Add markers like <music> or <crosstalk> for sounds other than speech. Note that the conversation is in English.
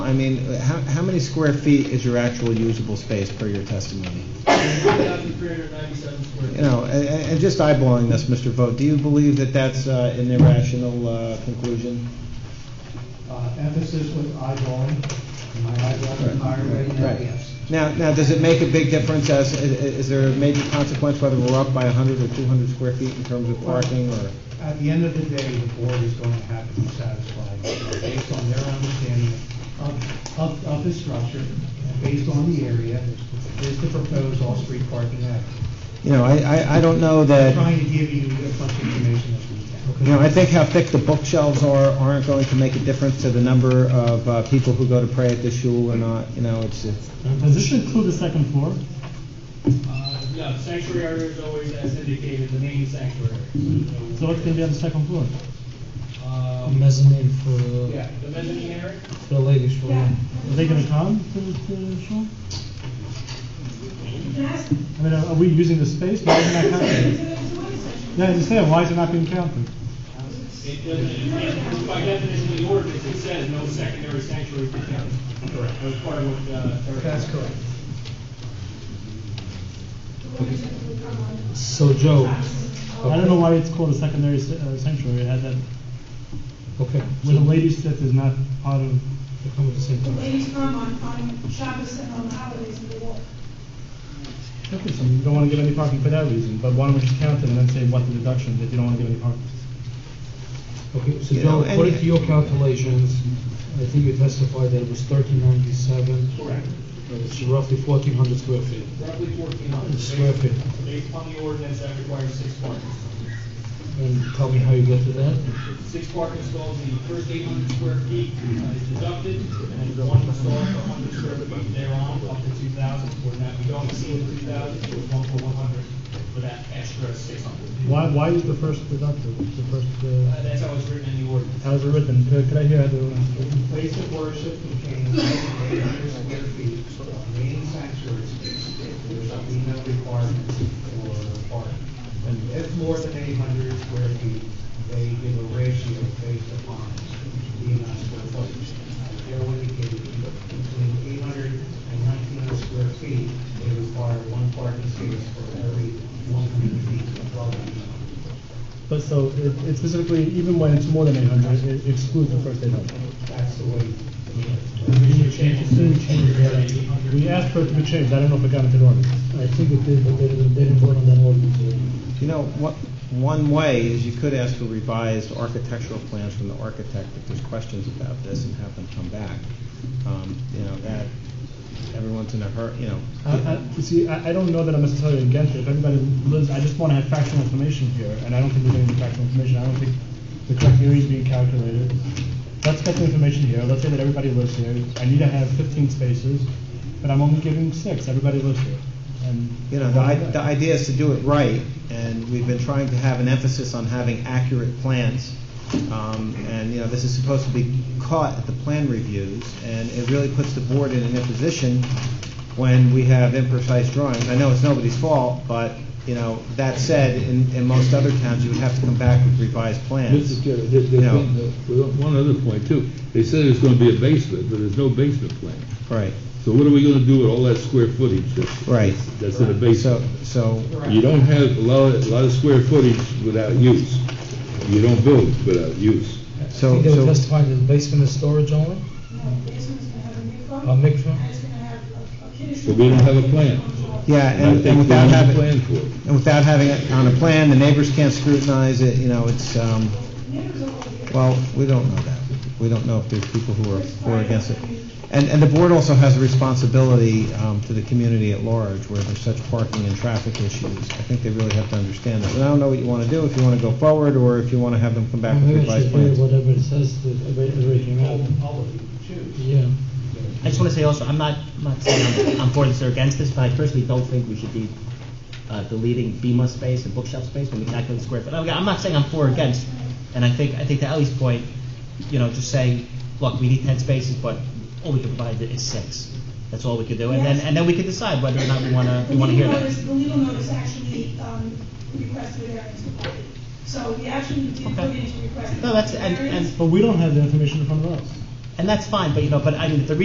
I mean, how, how many square feet is your actual usable space per your testimony? 1,397 square feet. You know, and, and just eyeballing this, Mr. Vogt, do you believe that that's uh, an irrational uh, conclusion? Uh, Emphasis with eyeballing, my eyeballs are higher right now, Right. yes. Now, now, does it make a big difference as, i- i- is there a major consequence whether we're up by 100 or 200 square feet in terms of parking or? At the end of the day, the board is going to have to be satisfied based on their understanding of, of, of the structure, and based on the area, is to propose off-street parking act. You know, I, I, I don't know that. Trying to give you as much information as we can. You know, I think how thick the bookshelves are aren't going to make a difference to the number of uh, people who go to pray at the shul or not. You know, it's, it's Does this include the second floor? Uh, No, sanctuary area is always, as indicated, the main sanctuary. So what can be on the second floor? Uh, mezzanine for Yeah, the mezzanine area, the ladies' room. Are they gonna come to the to the show? I mean, are are we using the space? Why is it <laughs> not counted? Yeah, I understand, why is it not being counted? it doesn't, it- by definition, the ordinance, it says no secondary sanctuary for town. Correct. That was part of what, uh. That's correct. So Joe, I don't know why it's called a secondary sa- uh, sanctuary, it had that, okay, where the ladies' set is not part of, they're coming at the same The time. ladies come on, on Shabbos and on the holidays in the wall. okay, so you don't wanna give any parking for that reason, but why don't we just count it and then say what the deduction, if you don't wanna give any parking? Okay, so You know, Joe, and- according to your calculations, I think you testified that it was thirteen ninety-seven, Correct, it's roughly fourteen hundred square feet. roughly fourteen hundred. Square feet. Based upon the ordinance, that requires six parkings. And tell me how you get to that? Six parking stalls, the first eight hundred square feet uh, is deducted, and then one stall for hundred square feet thereon, up to two thousand, for that, we don't exceed the two thousand, so it's one for one hundred, for that extra six hundred. Why, why is the first deducted, the first, uh, That's how it's written in the ordinance. how's it written? Could could I hear how the ordinance is written? Place of worship contains 800 square feet of main sanctuary space. There shall be no requirement for parking. And if more than 800 square feet, they give a ratio based upon the amount of square footage. They're indicated between 800 and 1900 square feet, they require one parking space for every 100 feet of dwelling. But so, it it specifically, even when it's more than eight hundred, it excludes the first eight hundred. That's the way. We asked for it to be changed, I don't know if it got into the ordinance. I think it did, but they didn't, they didn't vote on that ordinance. You know, what, one way is you could ask for revised architectural plans from the architect if there's questions about this and have them come back. Um, You know, that, everyone's in a hurry, you know. I- uh, I- You see, I, I don't know that I'm necessarily against it, if everybody lives, I just wanna have factual information here, and I don't think we're getting the factual information, I don't think the correct area is being calculated. Let's get the information here, let's say that everybody lives here, I need to have fifteen spaces, but I'm only giving six, everybody lives here, and. You know, the, i- the idea is to do it right, and we've been trying to have an emphasis on having accurate plans. Um, and, you know, this is supposed to be caught at the plan reviews, and it really puts the board in an imposition when we have imprecise drawings. I know it's nobody's fault, but, you know, that said, in, in most other towns, you would have to come back with revised plans. Mr. Chairman, there- there's No. one, uh, one other point too. They said there's gonna be a basement, but there's no basement plan. Right, So what are we gonna do with all that square footage that's, right. that's in So, a basement? so, You don't have a lot, a lot of square footage without use. You don't build without use. I so, think they were so, testifying that the basement is storage only? No, basement's gonna have a A mikvah, mikvah? and it's gonna have a- a kiddush. But we don't have a plan. yeah, And I and and think we without have a having. plan for it. And without having it on a plan, the neighbors can't scrutinize it, you know, it's, um, Neighbors are over here. well, we don't know that. We don't know if there's people who are for or against it. And, and the board also has a responsibility um, to the community at large where there's such parking and traffic issues. I think they really have to understand that. And I don't know what you want to do, if you want to go forward or if you want to have them come back with Mm-hmm. Maybe I revised should read plans. whatever it says, that everybody came out. Yeah. I just want to say also, I'm not, I'm not saying I'm, I'm for this or against this, but I personally don't think we should be uh, deleting BMA space and bookshelf space when we calculate square foot. Again, I'm not saying I'm for or against, and I think, I think to Ellie's point, you know, just saying, look, we need ten spaces, but all we can provide is six. That's all we can do, and then, and then we can decide whether or not we want to, The we want to hear legal notice, that. the legal notice actually, um, requested a variance for parking. So we actually did put Okay. in a request. No, that's- and- and- variance. But we don't have the information in front of us. And that's fine, but, you know, but I mean, the